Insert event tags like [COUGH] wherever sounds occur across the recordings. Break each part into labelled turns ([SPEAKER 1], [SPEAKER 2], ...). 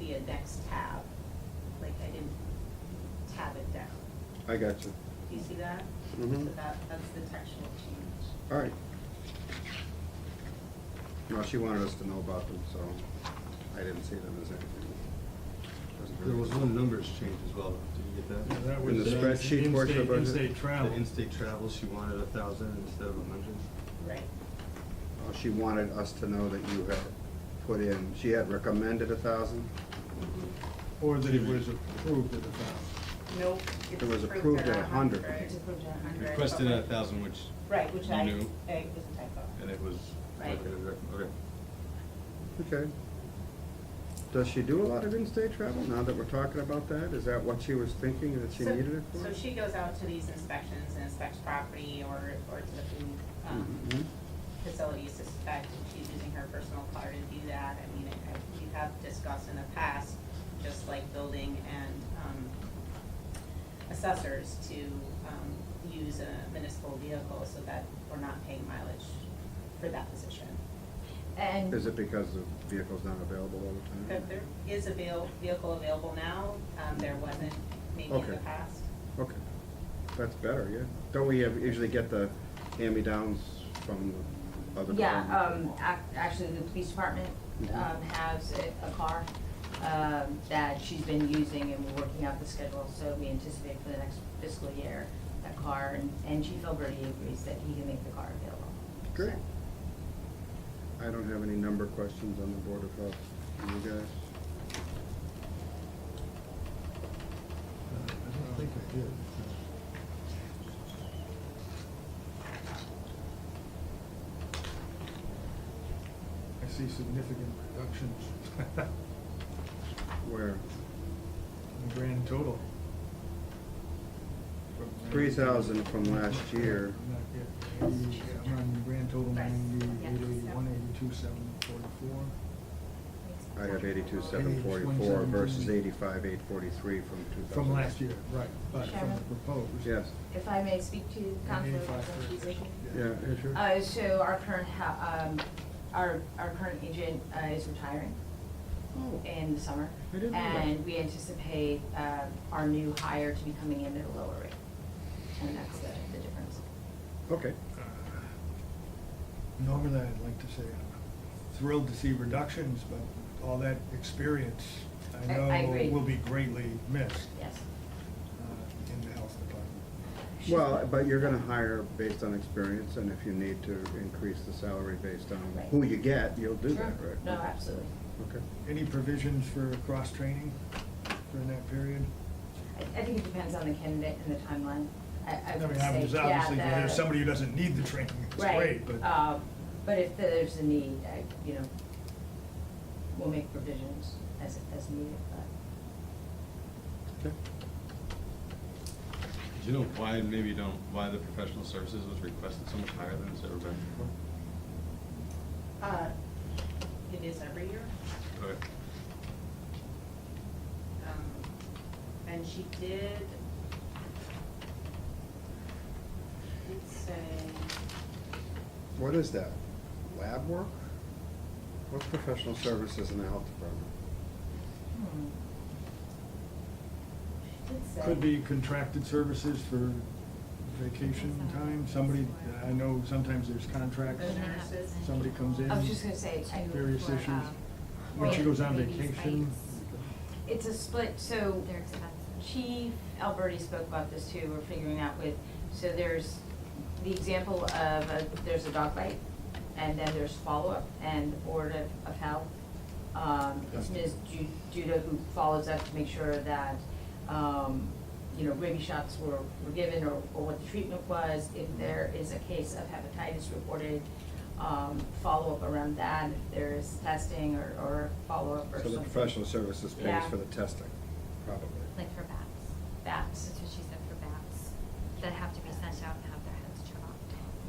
[SPEAKER 1] be a next tab, like I didn't tab it down.
[SPEAKER 2] I got you.
[SPEAKER 1] Do you see that?
[SPEAKER 2] Mhm.
[SPEAKER 1] So that, that's the textual change.
[SPEAKER 2] All right. Well, she wanted us to know about them, so I didn't see them as anything. Doesn't hurt.
[SPEAKER 3] There was one numbers change as well, did you get
[SPEAKER 4] Yeah,
[SPEAKER 3] that?
[SPEAKER 4] that
[SPEAKER 2] In
[SPEAKER 4] was
[SPEAKER 2] the
[SPEAKER 4] uh,
[SPEAKER 2] spreadsheet portion of
[SPEAKER 4] in-state-
[SPEAKER 2] budget?
[SPEAKER 4] In-state travel.
[SPEAKER 3] The in-state travel, she wanted a thousand instead of a hundred.
[SPEAKER 1] Right.
[SPEAKER 2] Uh, She wanted us to know that you had put in, she had recommended a thousand.
[SPEAKER 4] Or that it was approved at the time.
[SPEAKER 1] Nope.
[SPEAKER 2] It was approved at 100.
[SPEAKER 1] It's approved at a hundred.
[SPEAKER 3] Requested a thousand, which,
[SPEAKER 1] Right, which I,
[SPEAKER 3] New.
[SPEAKER 1] it was a typo.
[SPEAKER 3] and it was. uh,
[SPEAKER 1] Right.
[SPEAKER 3] Okay.
[SPEAKER 2] Okay. Does she do a lot of in-state travel now that we're talking about that? Is that what she was thinking, that she
[SPEAKER 1] So-
[SPEAKER 2] needed it for?
[SPEAKER 1] So she goes out to these inspections and inspects property or, or to the food, um,
[SPEAKER 2] Mhm.
[SPEAKER 1] facility suspect, and she's using her personal car to do that. I mean, I- I- we have discussed in the past, just like building and, um, assessors to, um, use a municipal vehicle so that we're not paying mileage for that position.
[SPEAKER 5] And
[SPEAKER 2] Is it because the vehicle's not available all the
[SPEAKER 1] There
[SPEAKER 2] time?
[SPEAKER 1] there is a veil- vehicle available now, um, there wasn't maybe in the
[SPEAKER 2] Okay.
[SPEAKER 1] past.
[SPEAKER 2] Okay, that's better, yeah. Don't we have- usually get the hand-me-downs from the other?
[SPEAKER 5] Yeah, um,
[SPEAKER 2] department?
[SPEAKER 5] ac- actually, the police department,
[SPEAKER 2] Mhm.
[SPEAKER 5] um, has a, a car, um, that she's been using and we're working out the schedule, so we anticipate for the next fiscal year, that car, and, and Chief Alberti agrees that he can make the car available.
[SPEAKER 2] Great. I don't have any number questions on the Board of Health. You guys?
[SPEAKER 4] Uh, I don't think I did. I see significant reductions
[SPEAKER 2] Where?
[SPEAKER 4] Uh, in the grand total. From nine-
[SPEAKER 2] 3,000 from last year.
[SPEAKER 4] Not yet. Eighty- I'm on the grand total
[SPEAKER 1] Right.
[SPEAKER 4] ninety,
[SPEAKER 1] Yeah.
[SPEAKER 4] eight eighty-one, eighty-two, seven forty-four.
[SPEAKER 2] I have eighty-two, seven forty-four versus eighty-five, eight forty-three from two thousand.
[SPEAKER 4] From last year, right, but from the
[SPEAKER 5] Sharon?
[SPEAKER 4] proposed.
[SPEAKER 2] Yes,
[SPEAKER 5] If I may speak to Councilor
[SPEAKER 4] Eighty-five for-
[SPEAKER 5] Chief.
[SPEAKER 2] yeah, yeah, sure.
[SPEAKER 5] Uh, so our current ha- um, our, our current agent, uh, is retiring.
[SPEAKER 2] Oh,
[SPEAKER 5] in the summer.
[SPEAKER 2] I didn't know that.
[SPEAKER 5] And we anticipate uh, our new hire to be coming in at a lower rate. And that's the, the difference.
[SPEAKER 2] Okay,
[SPEAKER 4] Normally, I'd like to say I'm thrilled to see reductions, but all that experience, I
[SPEAKER 5] I- I
[SPEAKER 4] know,
[SPEAKER 5] agree.
[SPEAKER 4] will be greatly missed
[SPEAKER 5] Yes.
[SPEAKER 4] uh, in the health department.
[SPEAKER 2] well, but you're gonna hire based on experience, and if you need to increase the salary based on
[SPEAKER 5] Right.
[SPEAKER 2] who you get, you'll do that,
[SPEAKER 5] Sure.
[SPEAKER 2] right?
[SPEAKER 5] No, absolutely.
[SPEAKER 2] Okay,
[SPEAKER 4] Any provisions for cross-training during that period?
[SPEAKER 5] I, I think it depends on the candidate and the timeline. I, I
[SPEAKER 4] I
[SPEAKER 5] would
[SPEAKER 4] mean,
[SPEAKER 5] say,
[SPEAKER 4] obviously,
[SPEAKER 5] yeah,
[SPEAKER 4] obviously, if
[SPEAKER 5] the-
[SPEAKER 4] there's somebody who doesn't need the training, it's great,
[SPEAKER 5] Right,
[SPEAKER 4] but
[SPEAKER 5] um, but if there's a need, I, you know, we'll make provisions as, as needed, but.
[SPEAKER 2] okay.
[SPEAKER 3] Do you know why, maybe you don't, why the professional services was requested so much higher than it's ever been before?
[SPEAKER 1] Uh, It is every year.
[SPEAKER 3] Okay.
[SPEAKER 1] Um, And she did, let's say,
[SPEAKER 2] What is that? Lab work? What professional services in the health department?
[SPEAKER 5] hmm.
[SPEAKER 1] let's say.
[SPEAKER 4] could be contracted services for vacation time. Somebody, I know sometimes there's contracts,
[SPEAKER 1] The nurses.
[SPEAKER 4] somebody comes in.
[SPEAKER 5] I was just gonna say, I. uh,
[SPEAKER 4] Various
[SPEAKER 6] for,
[SPEAKER 4] issues.
[SPEAKER 6] um,
[SPEAKER 4] When she goes on
[SPEAKER 6] babies'
[SPEAKER 4] vacation,
[SPEAKER 6] bites.
[SPEAKER 5] It's a split, so
[SPEAKER 6] They're expensive.
[SPEAKER 5] Chief Alberti spoke about this too, we're figuring out with, so there's the example of, a- there's a dog bite, and then there's follow-up, and the Board of, of Health, um, it's Ms. Ju- Judah who follows up to make sure that, um, you know, rabies shots were, were given, or, or what the treatment was, if
[SPEAKER 2] Mm-hmm.
[SPEAKER 5] there is a case of hepatitis reported, um, follow-up around that, if there is testing or, or follow-up or
[SPEAKER 2] So
[SPEAKER 5] something.
[SPEAKER 2] the professional services pays
[SPEAKER 5] Yeah.
[SPEAKER 2] for the testing, probably.
[SPEAKER 6] Like for bats.
[SPEAKER 5] That's,
[SPEAKER 6] That's what she said for bats, that have to be sent out and have their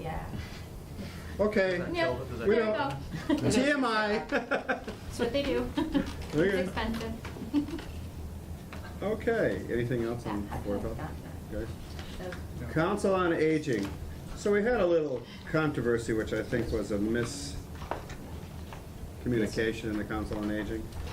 [SPEAKER 6] heads chopped.
[SPEAKER 5] yeah.
[SPEAKER 2] Okay.
[SPEAKER 6] No,
[SPEAKER 2] We
[SPEAKER 6] there you
[SPEAKER 2] don't- [LAUGHS]
[SPEAKER 6] go.
[SPEAKER 2] TMI.
[SPEAKER 6] That's
[SPEAKER 5] [LAUGHS]
[SPEAKER 6] what they do.
[SPEAKER 2] Okay.
[SPEAKER 6] It's expensive. [LAUGHS]
[SPEAKER 2] Okay, anything else on
[SPEAKER 5] Yeah, I
[SPEAKER 2] Board of
[SPEAKER 5] forgot
[SPEAKER 2] Health? Guys?
[SPEAKER 1] So-
[SPEAKER 4] No.
[SPEAKER 2] Council on Aging. So we had a little controversy, which I think was a miscommunication in the Council on Aging.